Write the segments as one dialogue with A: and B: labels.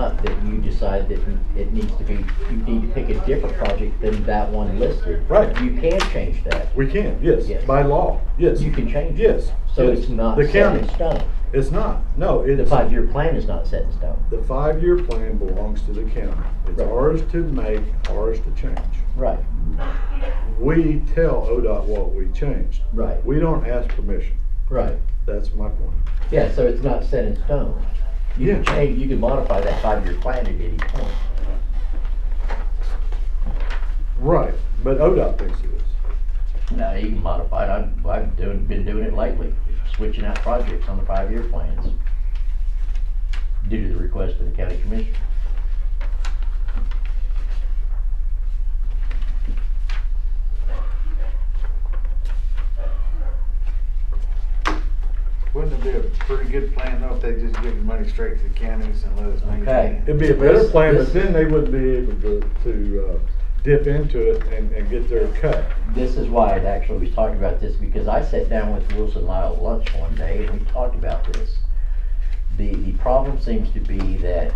A: out that you decide that it needs to be, you need to pick a different project than that one listed.
B: Right.
A: You can change that.
B: We can,
A: Yes.
B: yes, by law, yes.
A: You can change it.
B: Yes.
A: So
B: yes.
A: it's not
B: The
A: set in
B: county,
A: stone.
B: it's not, no, it's.
A: The five-year plan is not set in stone.
B: The five-year plan belongs to the county. It's
A: Right.
B: ours to make, ours to change.
A: Right,
B: We tell ODOT what we changed.
A: Right.
B: We don't ask permission.
A: right.
B: That's my point.
A: Yeah, so it's not set in stone. You can
B: Yeah.
A: change, you can modify that five-year plan at any point.
B: Right, but ODOT thinks it is.
A: No, you can modify it. I've, I've doing, been doing it lately, switching out projects on the five-year plans due to the request of the county commission.
C: Wouldn't it be a pretty good plan though if they just give the money straight to the counties and let us maintain
A: Okay.
C: it?
B: It'd be a better
A: This-
B: plan,
A: this-
B: but then they wouldn't be able to, to, uh, dip into it and, and get their cut.
A: This is why I actually was talking about this, because I sat down with Wilson Lyle at lunch one day and we talked about this. The, the problem seems to be that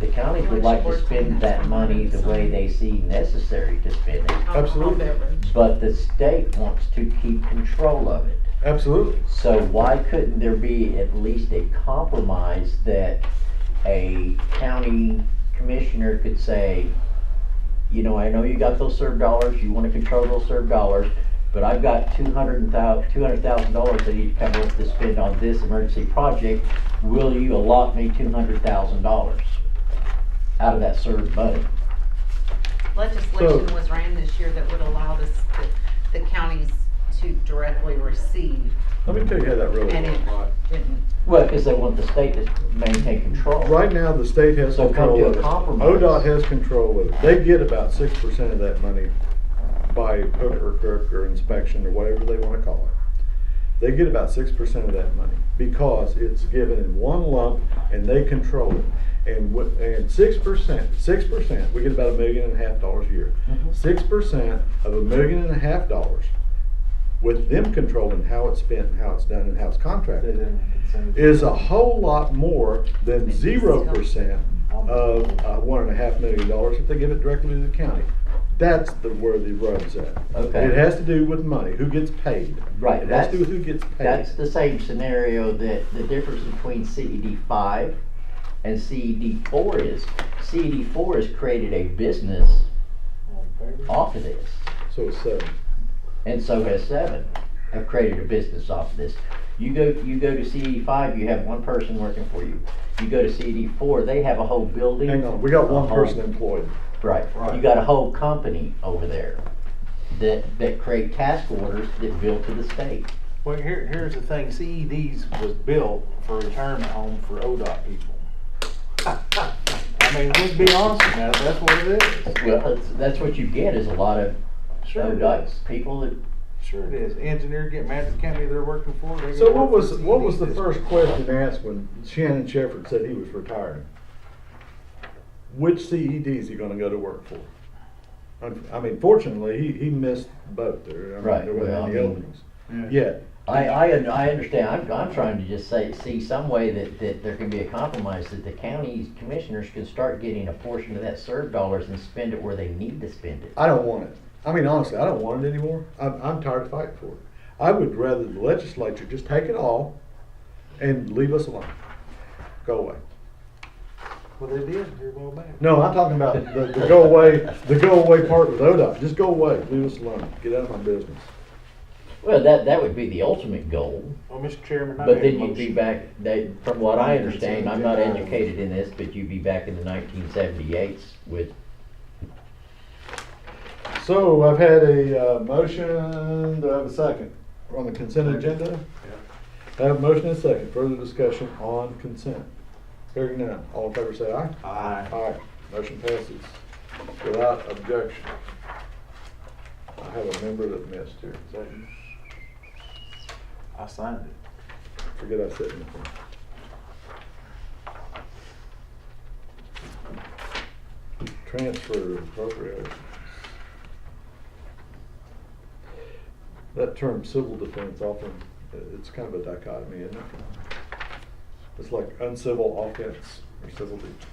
A: the counties would like to spend that money the way they see necessary to spend it,
D: on- on
B: Absolutely.
D: beverage.
A: but the state wants to keep control of it.
B: Absolutely.
A: So why couldn't there be at least a compromise that a county commissioner could say, you know, I know you got those served dollars, you wanna control those served dollars, but I've got two hundred and thou, two hundred thousand dollars I need to come up to spend on this emergency project. Will you allot me two hundred thousand dollars out of that served money?
D: Legislation was ran this year that would allow this, the, the counties to directly receive,
B: Let me tell you how that really
D: and it
B: works.
D: didn't.
A: Well, cause they want the state to maintain control.
B: Right now, the state has
A: So come
B: control
A: to a
B: of it.
A: compromise.
B: ODOT has control of it. They get about six percent of that money by hook or crook or inspection or whatever they wanna call it. They get about six percent of that money because it's given in one lump and they control it. And what, and six percent, six percent, we get about a million and a half dollars a year.
A: Mhm.
B: Six percent of a million and a half dollars with them controlling how it's spent and how it's done and how it's
C: They
B: contracted
C: didn't consent to
B: is a whole lot more than zero percent of uh, one and a half million dollars if they give it directly to the county. That's the where the rub's at.
A: Okay.
B: It has to do with money, who gets paid.
A: Right,
B: It has to
A: that's-
B: do with who gets paid.
A: That's the same scenario that the difference between CED five and CED four is, CED four has created a business
C: all in favor.
A: off of this,
B: So it's uh, seven.
A: and so has seven, have created a business off of this. You go, you go to CED five, you have one person working for you. You go to CED four, they have a whole building.
B: Hang on, we got one
A: a whole-
B: person employed.
A: Right, you
C: Right.
A: got a whole company over there that, that create task orders that bill to the state.
C: Well, here, here's the thing, CEDs was built for retirement home for ODOT people. I mean, let's be honest with you, that's what it is.
A: Well, that's, that's what you get is a lot of
C: Sure it
A: ODOT's
C: is.
A: people that
C: Sure it is. Engineer get mad at the county they're working for. they go
B: So what
C: work for E
B: was, what was the
C: CEDs.
B: first question asked when Shannon Shepard said he was retiring? Which CED is he gonna go to work for? Un- I mean, fortunately, he, he missed both there. I mean,
A: Right,
B: There wasn't
A: well, I
B: any
A: mean-
B: openings. Yeah,
A: I, I, un- I understand, I'm, I'm trying to just say, see some way that, that there can be a compromise, that the county's commissioners can start getting a portion of that serve dollars and spend it where they need to spend it.
B: I don't want it. I mean, honestly, I don't want it anymore. I'm, I'm tired of fighting for it. I would rather the legislature just take it all and leave us alone. Go away.
C: Well, they did here a while back.
B: No, I'm talking about the, the go away, the go away part with ODOT. Just go away, leave us alone, get out of my business.
A: Well, that, that would be the ultimate goal,
C: Well, Mr. Chairman, I
A: but
C: made a
A: then you'd be
C: motion.
A: back, they, from what I understand, I'm not educated in this, but you'd be back in the nineteen seventy-eights with,
B: So I've had a, uh, motion, do I have a second? On the consent agenda? I have a motion and a second, further discussion on consent. Hearing none, all in favor say aye.
C: Aye.
B: All right, motion passes without objection. I have a member that missed here. So
C: I signed it.
B: Forget I said anything. Transfer appropriations. That term civil defense often, i- it's kind of a dichotomy, isn't it? It's like uncivil offense or civil defense.